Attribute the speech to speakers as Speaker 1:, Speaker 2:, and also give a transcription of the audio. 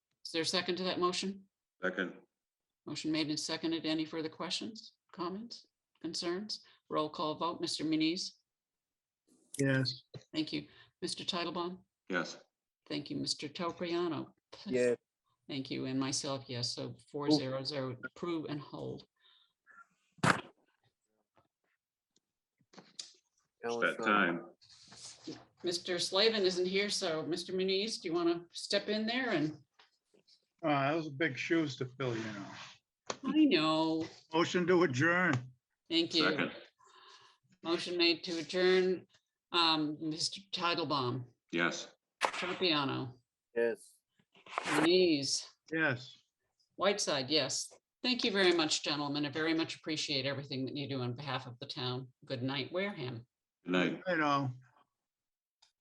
Speaker 1: Is there a second to that motion?
Speaker 2: Second,
Speaker 1: Motion made and seconded. Any further questions, comments, concerns? Roll call vote. Mr. Muniz?
Speaker 3: Yes.
Speaker 1: Thank you. Mr. Titlebaum?
Speaker 2: yes.
Speaker 1: Thank you, Mr. Topriano.
Speaker 3: Yeah.
Speaker 1: Thank you, and myself, yes, so four zero zero, approve and hold.
Speaker 2: It's that time.
Speaker 1: Mr. Slavin isn't here, so Mr. Muniz, do you want to step in there and,
Speaker 3: Uh, those are big shoes to fill, you know.
Speaker 1: I know,
Speaker 3: Motion to adjourn.
Speaker 1: thank you.
Speaker 2: Second,
Speaker 1: Motion made to adjourn, um, Mr. Titlebaum,
Speaker 2: yes.
Speaker 1: Tropiano,
Speaker 4: Yes.
Speaker 1: Muniz,
Speaker 3: Yes.
Speaker 1: Whiteside, yes. Thank you very much, gentlemen. I very much appreciate everything that you do on behalf of the town. Good night, Wareham.
Speaker 2: Good night.
Speaker 3: I know.